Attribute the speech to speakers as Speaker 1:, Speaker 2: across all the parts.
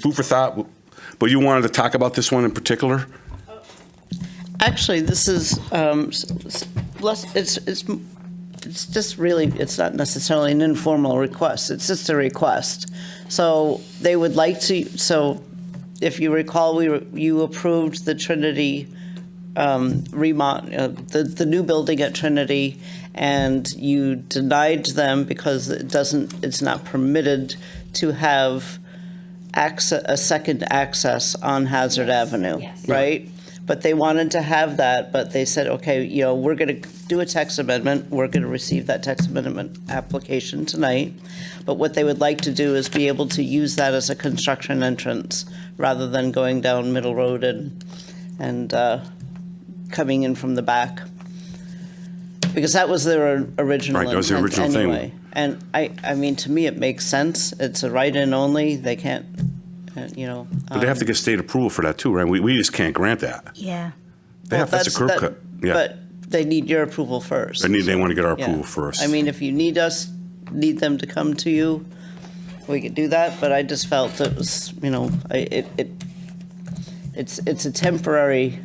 Speaker 1: food for thought. But you wanted to talk about this one in particular?
Speaker 2: Actually, this is, um, s- s- less, it's, it's, it's just really, it's not necessarily an informal request, it's just a request. So they would like to, so if you recall, we, were- you approved the Trinity um, remod, uh, the, the new building at Trinity, and you denied them because it doesn't, it's not permitted to have access, a second access on Hazard Avenue,
Speaker 3: yes.
Speaker 2: right? But they wanted to have that, but they said, okay, you know, we're going to do a text amendment, we're going to receive that text amendment application tonight, but what they would like to do is be able to use that as a construction entrance, rather than going down Middle Road and, and uh, coming in from the back. Because that was their original
Speaker 1: Right, that was the
Speaker 2: intent
Speaker 1: original thing.
Speaker 2: anyway. And I, I mean, to me, it makes sense. It's a write-in only. They can't, uh, you know.
Speaker 1: But they have to get state approval for that too, right? We, we just can't grant that.
Speaker 3: Yeah.
Speaker 1: They have, that's a curb cut. Yeah.
Speaker 2: But they need your approval first.
Speaker 1: They need, they want to get our
Speaker 2: Yeah.
Speaker 1: approval first.
Speaker 2: I mean, if you need us, need them to come to you, we could do that, but I just felt that was, you know, I- it, it, it's, it's a temporary,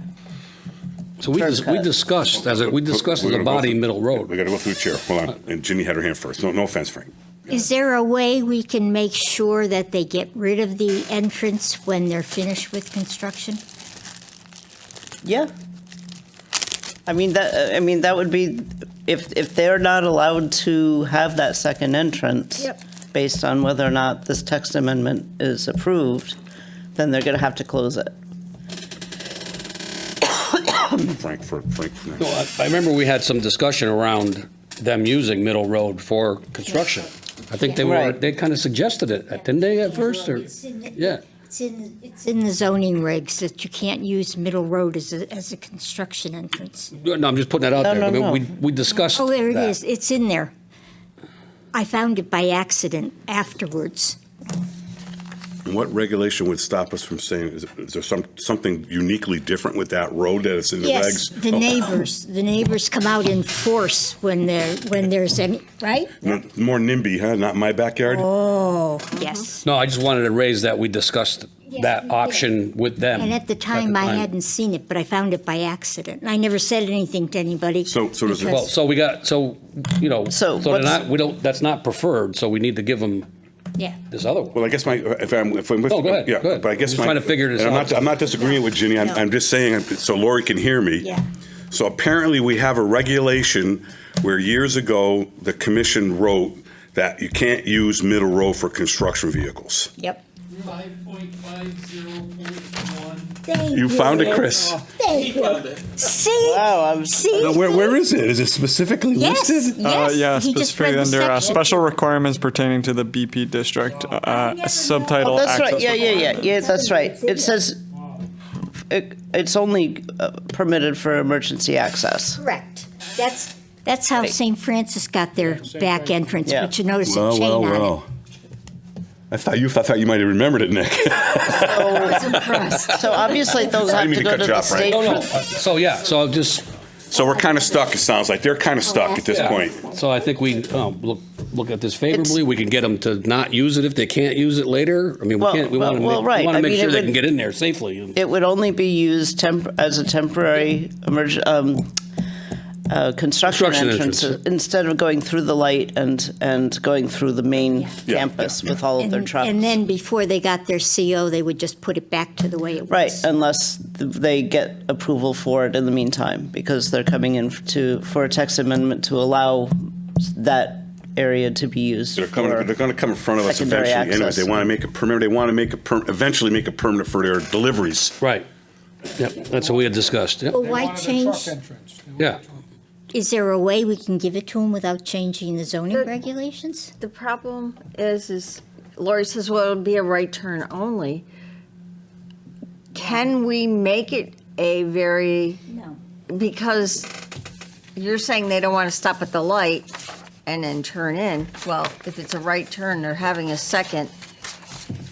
Speaker 4: So we, dis- we
Speaker 2: cut.
Speaker 4: discussed, as a, we discussed
Speaker 1: We're
Speaker 4: as a
Speaker 1: gonna go
Speaker 4: body,
Speaker 1: through-
Speaker 4: Middle
Speaker 1: We
Speaker 4: Road. Uh,
Speaker 1: got to go through the chair. Hold on. And Ginny had her hand first. No, no offense, Frank.
Speaker 3: Is there a way we can make sure that they get rid of the entrance when they're finished with construction?
Speaker 2: yeah. I mean, that, I mean, that would be, if, if they're not allowed to have that second entrance,
Speaker 3: Yep.
Speaker 2: based on whether or not this text amendment is approved, then they're going to have to close it.
Speaker 1: Frank for Frank. next.
Speaker 4: No, I- I remember we had some discussion around them using Middle Road for construction. I think they were,
Speaker 2: Right.
Speaker 4: they kind of suggested it, didn't they at first, or?
Speaker 3: It's in the-
Speaker 4: Yeah,
Speaker 3: It's in, it's in the zoning regs that you can't use Middle Road as a, as a construction entrance.
Speaker 4: no, I'm just putting that out
Speaker 2: No,
Speaker 4: there. I
Speaker 2: no,
Speaker 4: mean, We,
Speaker 2: no.
Speaker 4: we discussed
Speaker 3: Oh, there it
Speaker 4: that.
Speaker 3: is, it's in there. I found it by accident afterwards.
Speaker 1: And What regulation would stop us from saying, is is there some, something uniquely different with that road that it's in the
Speaker 3: Yes,
Speaker 1: regs?
Speaker 3: the
Speaker 1: Oh,
Speaker 3: neighbors, the neighbors come out in force when there, when there's any, right?
Speaker 1: no, More NIMBY, huh? Not my backyard?
Speaker 3: Oh, yes.
Speaker 4: No, I just wanted to raise that we discussed
Speaker 3: Yes, we
Speaker 4: that
Speaker 3: did.
Speaker 4: option with them.
Speaker 3: And at the time, I hadn't seen it, but I found it by accident. And I never said anything to anybody.
Speaker 1: So- so does it-
Speaker 3: because-
Speaker 4: Well, so we got, so, you know,
Speaker 2: So
Speaker 4: so they're
Speaker 2: what's-
Speaker 4: not, we don't, that's not preferred, so we need to give them
Speaker 3: Yeah.
Speaker 4: this other one.
Speaker 1: Well, I guess my, if I'm, if I'm with.
Speaker 4: No, go ahead,
Speaker 1: yeah,
Speaker 4: go ahead.
Speaker 1: But I guess
Speaker 4: I'm just
Speaker 1: my.
Speaker 4: trying to figure this
Speaker 1: and I'm
Speaker 4: out.
Speaker 1: not- I'm not disagreeing with Ginny, I'm,
Speaker 3: No.
Speaker 1: I'm just saying, so Lori can hear me.
Speaker 3: Yeah.
Speaker 1: So apparently we have a regulation where years ago, the commission wrote that you can't use middle row for construction vehicles.
Speaker 3: Yep.
Speaker 5: Five point five zero point one.
Speaker 3: Thank
Speaker 1: You found it, Chris?
Speaker 3: Thank you. See?
Speaker 2: Wow, I'm-
Speaker 3: See?
Speaker 1: Now, Where, where is it? Is it specifically
Speaker 3: Yes,
Speaker 1: listed?
Speaker 6: Uh,
Speaker 3: yes.
Speaker 6: yeah,
Speaker 3: he just
Speaker 6: specifically
Speaker 3: read the
Speaker 6: under uh,
Speaker 3: section.
Speaker 6: special requirements pertaining to the BP district, uh,
Speaker 2: Oh,
Speaker 6: subtitle
Speaker 3: Oh,
Speaker 2: That's
Speaker 6: access.
Speaker 2: right, yeah, yeah, yeah, yeah, that's right.
Speaker 3: in
Speaker 2: It says, it- it's only uh, permitted for emergency access.
Speaker 3: Correct. That's, that's how St. Francis got their back entrance,
Speaker 2: Yeah.
Speaker 3: but you notice a
Speaker 1: Well,
Speaker 3: chain
Speaker 1: well,
Speaker 3: on
Speaker 1: well. I thought you, I thought you might have remembered it, Nick.
Speaker 3: it. I was impressed.
Speaker 2: So obviously, those have
Speaker 1: mean
Speaker 2: to
Speaker 1: to
Speaker 2: go
Speaker 1: cut
Speaker 2: to
Speaker 1: you
Speaker 2: the
Speaker 1: off, Frank.
Speaker 2: state.
Speaker 4: No, no,
Speaker 2: for-
Speaker 4: so, yeah, so I'll just,
Speaker 1: So we're kind of stuck, it sounds like. They're kind of stuck at this
Speaker 4: Yeah.
Speaker 1: point.
Speaker 4: So I think we um, look look at this favorably. we can get them to not use it if they can't use it later. I mean, we
Speaker 2: Well,
Speaker 4: can't. We want to
Speaker 2: well,
Speaker 4: make,
Speaker 2: right.
Speaker 4: we want
Speaker 2: I
Speaker 4: to make
Speaker 2: mean,
Speaker 4: sure
Speaker 2: it
Speaker 4: they
Speaker 2: would-
Speaker 4: can get in there safely.
Speaker 2: It would only be used temp, as a temporary emerg, um, uh, construction
Speaker 4: Construction
Speaker 2: entrance,
Speaker 4: entrance.
Speaker 2: instead of going through the light and, and going through the main
Speaker 1: Yeah,
Speaker 2: campus
Speaker 1: yeah,
Speaker 2: with all of
Speaker 3: And
Speaker 2: their trucks.
Speaker 3: and then before they got their CO, they would just put it back to the way it was.
Speaker 2: Right, unless th- they get approval for it in the meantime, because they're coming in f- to, for a text amendment to allow s- that area to be used.
Speaker 1: They're coming,
Speaker 2: for-
Speaker 1: they're going to come in front of us
Speaker 2: secondary
Speaker 1: eventually. Anyway,
Speaker 2: access.
Speaker 1: they want to make a permit, they want to make a, per- eventually make a permit for their deliveries.
Speaker 4: Right. Yep. That's what we had discussed. Yep.
Speaker 3: Well, why change?
Speaker 4: Yeah.
Speaker 3: Is there a way we can give it to them without changing the zoning regulations?
Speaker 7: The problem is, is Lori says, well, it'll be a right turn only. Can we make it a very,
Speaker 3: No.
Speaker 7: because you're saying they don't want to stop at the light and then turn in. Well, if it's a right turn, they're having a second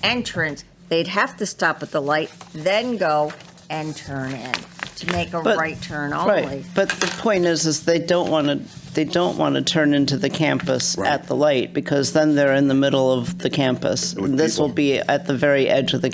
Speaker 7: entrance, they'd have to stop at the light, then go and turn in to make a
Speaker 2: But-
Speaker 7: right turn
Speaker 2: Right,
Speaker 7: only.
Speaker 2: but the point is, is they don't want to, they don't want to turn into the campus
Speaker 1: Right.
Speaker 2: at the light, because then they're in the middle of the campus.
Speaker 1: With
Speaker 2: This will
Speaker 1: people.
Speaker 2: be at the very edge of the